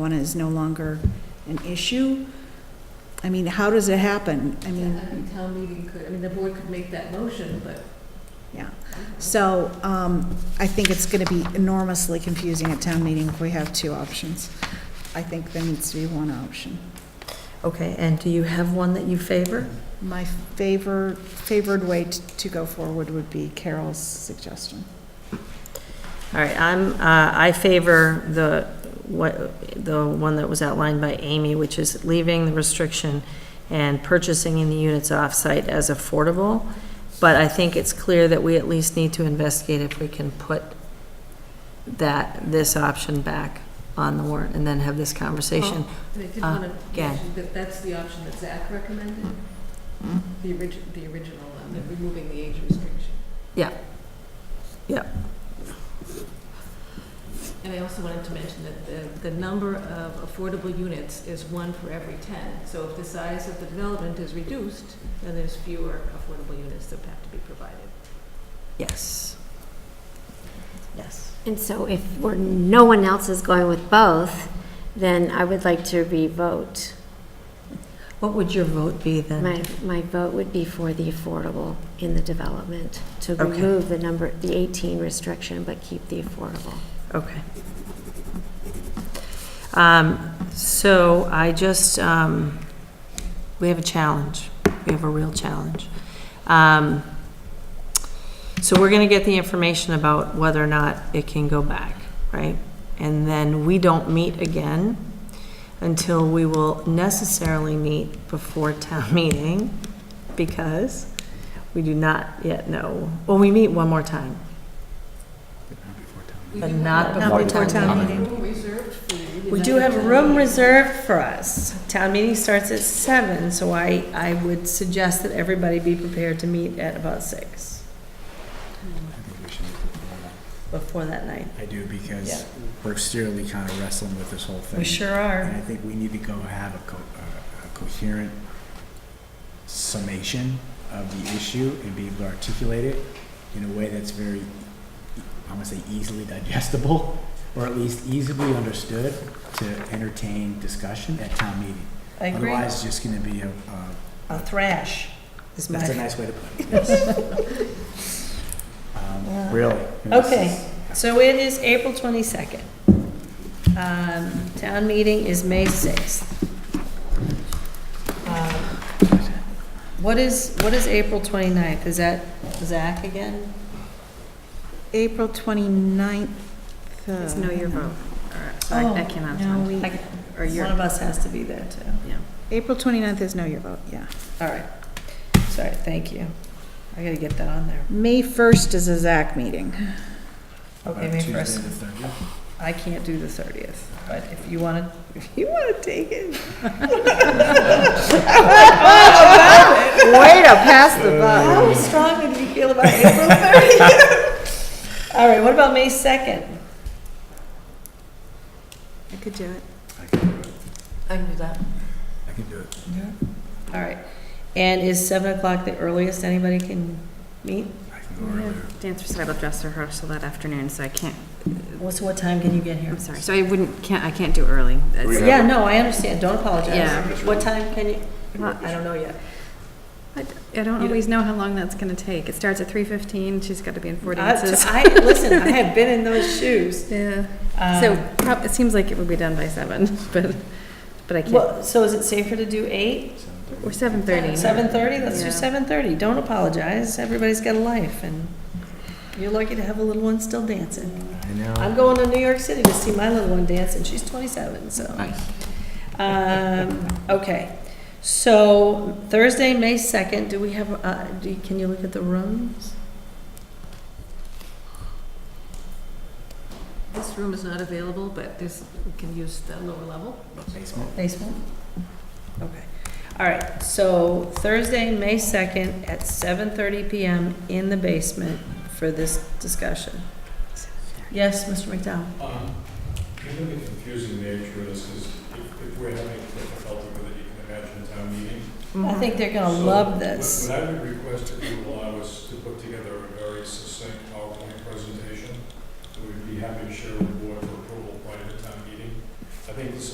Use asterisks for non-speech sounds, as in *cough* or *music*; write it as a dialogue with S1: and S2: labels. S1: marijuana is no longer an issue? I mean, how does it happen? I
S2: Yeah,
S1: mean,
S2: I think town meeting could, I mean, the board could make that motion, but.
S1: yeah. So um, I think it's going to be enormously confusing at town meeting if we have two options. I think there needs to be one option.
S3: Okay, and do you have one that you favor?
S1: My favor, favored way t- to go forward would be Carol's suggestion.
S3: All right, I'm, uh, I favor the, what, the one that was outlined by Amy, which is leaving the restriction and purchasing in the units off-site as affordable. But I think it's clear that we at least need to investigate if we can put that, this option back on the warrant and then have this conversation.
S2: And I did
S3: Uh,
S2: want to
S3: again.
S2: mention that that's the option that Zach recommended, the origin, the original, on the removing the age restriction.
S3: Yeah. Yeah.
S2: And I also wanted to mention that the, the number of affordable units is one for every ten. So if the size of the development is reduced, then there's fewer affordable units that have to be provided.
S3: Yes. Yes.
S4: And so if we're, no one else is going with both, then I would like to re-vote.
S3: What would your vote be then?
S4: My, my vote would be for the affordable in the development, to
S3: Okay.
S4: remove the number, the 18 restriction, but keep the affordable.
S3: Okay. Um, So I just, um, we have a challenge. We have a real challenge. Um, So we're going to get the information about whether or not it can go back, right? And then we don't meet again until we will necessarily meet before town *laughs* meeting because we do not yet know. Well, we meet one more time.
S2: We
S3: But
S2: do
S3: not
S2: have a-
S3: Not before
S1: before town town meeting.
S2: Room reserved for you.
S3: We do have a room reserved for us. Town meeting starts at seven, so I, I would suggest that everybody be prepared to meet at about six
S5: I think we should make it formal.
S3: before that night.
S5: I do
S3: Yeah.
S5: because we're seriously kind of wrestling with this whole thing.
S3: We sure are.
S5: And I think we need to go have a co- uh, a- a coherent summation of the issue and be able to articulate it in a way that's very, I want to say easily digestible, *laughs* or at least easily understood to entertain discussion at town meeting.
S3: I agree.
S5: Otherwise, it's just going to be a, a-
S3: A thrash is
S5: that's a
S3: my,
S5: nice way
S3: *laughs*
S5: to put it, yes. Um,
S3: Yeah.
S5: Really. and this
S3: Okay.
S5: is-
S3: so it is April twenty-second. Um, town meeting is May sixth. Um, What is, what is April 29th? Is that Zach again?
S1: April uh, 29th.
S4: It's no your vote.
S3: sorry, I
S4: cannot.
S1: No, we,
S3: I- Oh, One of us has to be there too.
S1: April 29th is no your vote, yeah.
S3: All right. Sorry, thank you. I gotta get that on there.
S1: May 1st is a ZAC meeting.
S3: Okay,
S5: About
S3: May
S5: uh, Tuesday
S3: first.
S5: the 30th.
S3: I can't do the thirtieth, but if you wanna, *laughs* if you wanna take it.
S1: Way to pass the buck.
S3: How strongly do you feel about April thirtieth? *laughs* All right, what about May second?
S1: I could do it.
S5: I can do it.
S2: I can do that.
S5: I can do it.
S3: All right. And is seven o'clock the earliest anybody can meet?
S5: I can go earlier.
S6: dance recital dress rehearsal that afternoon, so I can't,
S3: What's, what time can you get here?
S6: I'm sorry, so I wouldn't, can't, I can't do early. That's-
S3: Yeah, no, I understand. Don't apologize.
S6: Yeah.
S3: What time can you,
S6: Well,
S3: I don't know yet.
S6: I I don't always know how long that's gonna take. It starts at three fifteen, she's gotta be in four dances.
S3: Uh,
S6: *laughs*
S3: I, I- listen, I have been in those shoes.
S6: Yeah,
S3: Um,
S6: so prob, it seems like it would be done by seven, *laughs* but, but I can't,
S3: Well, so is it safer to do eight?
S6: or seven thirty.
S3: Seven thirty, let's do
S6: Yeah.
S3: seven thirty, don't apologize, everybody's got a life, and you're lucky to have a little one still dancing.
S5: I know.
S3: I'm going to New York City to see my little one dance, and she's twenty-seven, so. Um, okay, so Thursday, May second, do we have, uh, do, can you look at the rooms?
S2: This room is not available, but this, we can use the lower level.
S5: Basement.
S3: Basement? Okay, all right, so Thursday, May second, at seven thirty PM in the basement for this discussion. Yes, Mr. McDowell?
S7: Um, Given the confusing nature of this, is if if we're having difficulty with it, you can imagine town meeting.
S3: I think they're gonna
S7: So,
S3: love
S7: what-
S3: this.
S7: What I would request that you allow us to put together a very succinct PowerPoint presentation that we'd be happy to share with the board for approval prior to town meeting. I think this